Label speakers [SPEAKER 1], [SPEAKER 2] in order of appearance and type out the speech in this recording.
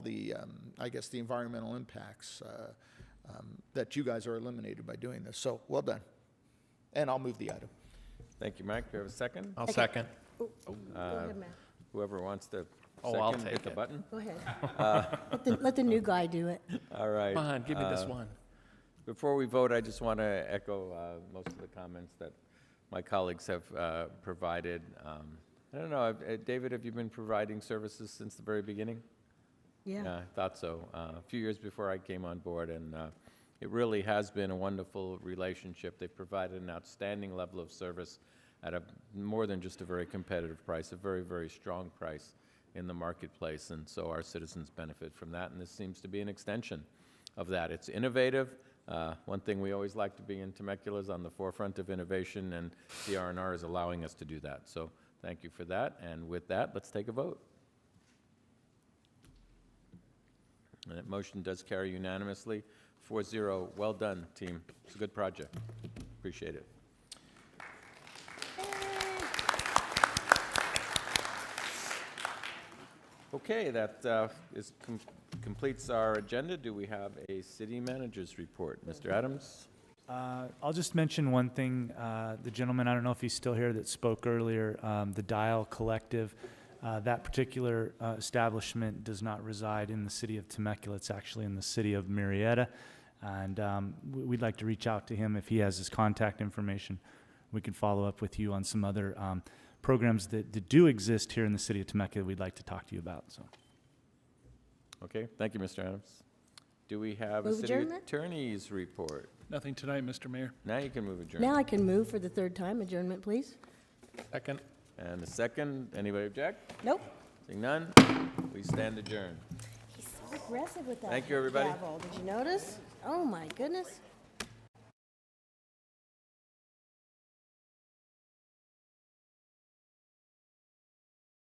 [SPEAKER 1] the, um, I guess, the environmental impacts uh, um, that you guys are eliminated by doing this. So well done. And I'll move the item.
[SPEAKER 2] Thank you, Mike. Do you have a second?
[SPEAKER 3] I'll second.
[SPEAKER 4] Go ahead, Matt.
[SPEAKER 2] Whoever wants to
[SPEAKER 3] Oh, I'll
[SPEAKER 2] second, hit
[SPEAKER 3] take
[SPEAKER 2] the
[SPEAKER 3] it.
[SPEAKER 2] button.
[SPEAKER 4] Go ahead. Let the, let the new guy do it.
[SPEAKER 2] All right.
[SPEAKER 3] Come on, give me this
[SPEAKER 2] Uh,
[SPEAKER 3] one.
[SPEAKER 2] Before we vote, I just want to echo uh, most of the comments that my colleagues have uh, provided. Um, I don't know, uh, David, have you been providing services since the very beginning?
[SPEAKER 4] Yeah.
[SPEAKER 2] I thought so. Uh, A few years before I came on board, and uh, it really has been a wonderful relationship. They've provided an outstanding level of service at a, more than just a very competitive price, a very, very strong price in the marketplace, and so our citizens benefit from that, and this seems to be an extension of that. It's innovative. Uh, One thing we always like to be in Temecula is on the forefront of innovation, and CRNR is allowing us to do that. So thank you for that, and with that, let's take a vote. And that motion does carry unanimously, 4-0. Well done, team. It's a good project. Appreciate it. Okay, that uh, is, com- completes our agenda. Do we have a city manager's report? Mr. Adams?
[SPEAKER 5] Uh, I'll just mention one thing. Uh, The gentleman, I don't know if he's still here, that spoke earlier, um, the Dial Collective, uh, that particular uh, establishment does not reside in the city of Temecula. It's actually in the city of Marietta. And um, we- we'd like to reach out to him if he has his contact information. We can follow up with you on some other um, programs that that do exist here in the city of Temecula we'd like to talk to you about, so.
[SPEAKER 2] Okay, thank you, Mr. Adams. Do we have a
[SPEAKER 4] Move
[SPEAKER 2] city
[SPEAKER 4] adjournment?
[SPEAKER 2] attorney's report?
[SPEAKER 6] Nothing tonight, Mr. Mayor.
[SPEAKER 2] Now you can move adjournment.
[SPEAKER 4] Now I can move for the third time. Adjournment, please.
[SPEAKER 3] Second.
[SPEAKER 2] And a second, anybody object?
[SPEAKER 4] Nope.
[SPEAKER 2] Seeing none, we stand adjourned.
[SPEAKER 4] He's so aggressive with that.
[SPEAKER 2] Thank you, everybody.
[SPEAKER 4] gavel. Did you notice? Oh, my goodness.